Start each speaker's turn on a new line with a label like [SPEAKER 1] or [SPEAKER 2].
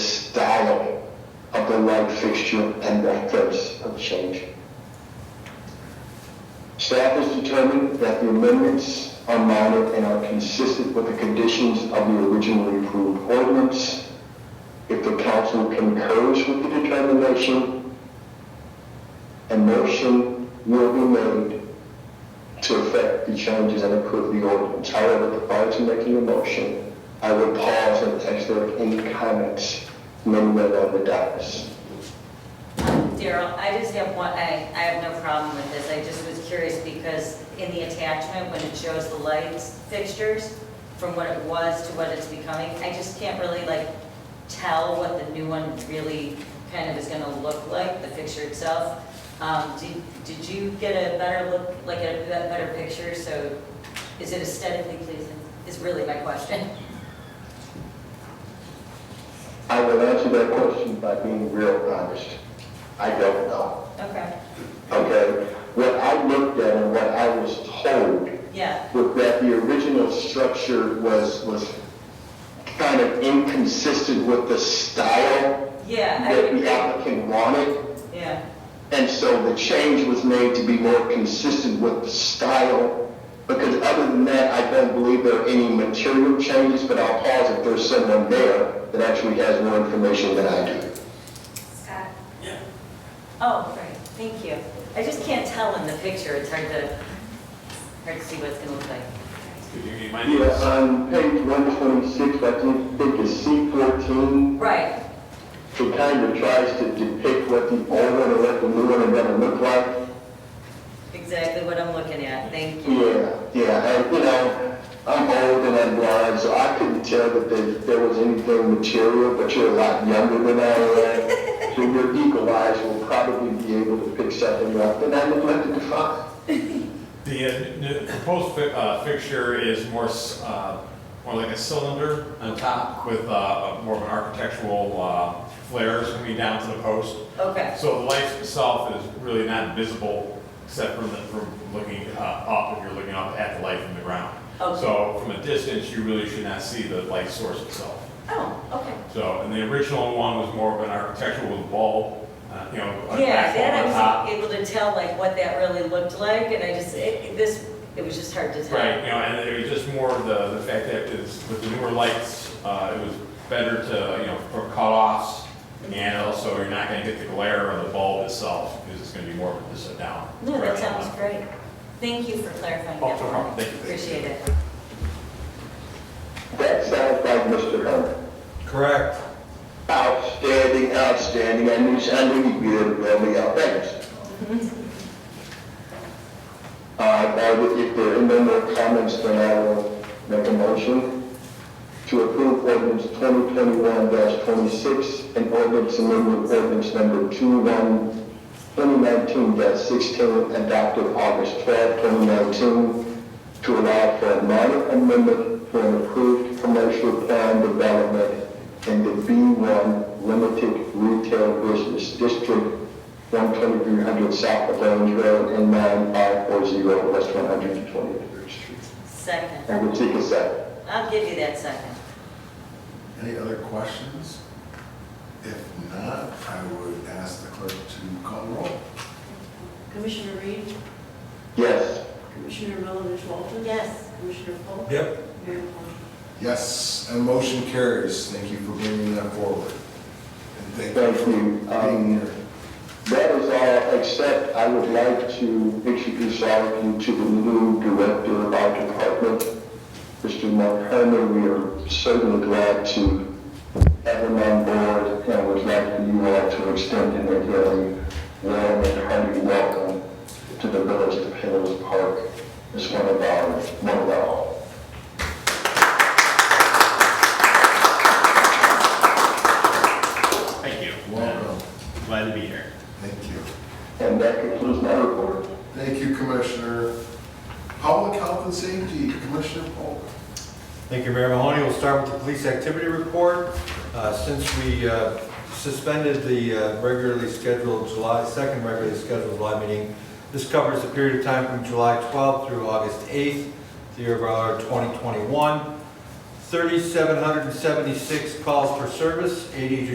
[SPEAKER 1] light fixture and methods of change. Staff has determined that the amendments are minor and are consistent with the conditions of the originally approved ordinance. If the council concurs with the determination, a motion will be made to affect the changes and approve the ordinance. However, prior to making a motion, I will pause and ask there are any comments, none read on the dais.
[SPEAKER 2] Daryl, I just have one, I, I have no problem with this, I just was curious because in the attachment, when it shows the lights fixtures, from what it was to what it's becoming, I just can't really like tell what the new one really kind of is gonna look like, the fixture itself. Um, did, did you get a better look, like a be- better picture, so is it aesthetically pleasing, is really my question.
[SPEAKER 1] I will answer that question by being real honest. I don't know,
[SPEAKER 2] Okay,
[SPEAKER 1] okay? What I looked at and what I was told
[SPEAKER 2] yeah,
[SPEAKER 1] was that the original structure was, was kind of inconsistent with the style
[SPEAKER 2] yeah, I
[SPEAKER 1] that
[SPEAKER 2] would
[SPEAKER 1] the
[SPEAKER 2] agree,
[SPEAKER 1] applicant wanted.
[SPEAKER 2] yeah,
[SPEAKER 1] And so the change was made to be more consistent with the style. Because other than that, I don't believe there are any material changes, but I'll pause if there's someone there that actually has more information than I do.
[SPEAKER 2] Scott? Oh, great, thank you. I just can't tell in the picture, it's hard to, hard to see what it's gonna look like.
[SPEAKER 3] Could you remind me?
[SPEAKER 1] Yeah, on page one twenty-six, I think, think it's C fourteen,
[SPEAKER 2] Right,
[SPEAKER 1] it kind of tries to depict what the old one and what the new one are gonna look like.
[SPEAKER 2] exactly what I'm looking at, thank you.
[SPEAKER 1] Yeah, yeah, and, you know, I'm old and I'm blind, so I couldn't tell that there, there was anything material, but you're a lot younger than I am. So your eagle eyes will probably be able to pick something up, and I neglected to find.
[SPEAKER 3] The uh, n- proposed fi- uh, fixture is more, s- uh, more like a cylinder on top with uh, more of an architectural uh, flares coming down to the post.
[SPEAKER 2] Okay,
[SPEAKER 3] So the light itself is really not visible except from the, from looking uh, up, if you're looking up at the light from the ground.
[SPEAKER 2] Okay.
[SPEAKER 3] So from a distance, you really should not see the light source itself.
[SPEAKER 2] oh, okay.
[SPEAKER 3] So, and the original one was more of an architectural wall, uh, you know, a
[SPEAKER 2] Yeah,
[SPEAKER 3] platform on
[SPEAKER 2] then I
[SPEAKER 3] top.
[SPEAKER 2] was able to tell like what that really looked like, and I just, it, this, it was just hard to tell.
[SPEAKER 3] Right, you know, and it was just more of the, the fact that it's, with the newer lights, uh, it was better to, you know, for cutoffs. And also, you're not gonna get the glare of the bulb itself, because it's gonna be more of a sit down.
[SPEAKER 2] No, that sounds great. Thank you for clarifying
[SPEAKER 3] Oh, no
[SPEAKER 2] that.
[SPEAKER 3] problem. Thank you.
[SPEAKER 2] Appreciate it.
[SPEAKER 1] That sounds like Mr. Herman.
[SPEAKER 3] Correct.
[SPEAKER 1] Outstanding, outstanding, I knew, I knew you'd be able to bail me out, thanks. Uh, now, if- if there are no more comments, then I will make a motion to approve ordinance twenty twenty-one twenty-six and ordinance amendment ordinance number two one 2019-16 adopted August 12, 2019, to allow for a minor amendment for an approved commercial plan development in the B1 Limited Retail Business District, 12300 South Plains Road and 9540 West 123rd Street.
[SPEAKER 2] Second,
[SPEAKER 1] I will take a second.
[SPEAKER 2] I'll give you that second.
[SPEAKER 4] Any other questions? If not, I would ask the clerk to call the roll.
[SPEAKER 5] Commissioner Reed,
[SPEAKER 1] Yes,
[SPEAKER 5] Commissioner Milovich Walters?
[SPEAKER 2] Yes.
[SPEAKER 5] Commissioner Polk?
[SPEAKER 3] Yep.
[SPEAKER 5] Mayor Plummer?
[SPEAKER 4] Yes, and motion carries. Thank you for bringing that forward. And thank you
[SPEAKER 1] Thank
[SPEAKER 4] for
[SPEAKER 1] you. Um,
[SPEAKER 4] being here.
[SPEAKER 1] that is all, except I would like to introduce all of you to the new director of our department, Mr. Mark Herman. We are certainly glad to have him on board, and would like for you all to extend him a very warm and hearty welcome to the village of Hills Park. It's one of our, one of our.
[SPEAKER 3] Thank you.
[SPEAKER 4] Welcome.
[SPEAKER 3] Glad to be here.
[SPEAKER 4] Thank you.
[SPEAKER 1] And that concludes my report.
[SPEAKER 4] Thank you, Commissioner. Public Health and Safety, Commissioner Polk.
[SPEAKER 6] Thank you, Mayor Mahoney. We'll start with the police activity report. Uh, Since we uh, suspended the uh, regularly scheduled July, second regularly scheduled July meeting, this covers the period of time from July 12th through August 8th, the year of our 2021. 3,776 calls for service, 80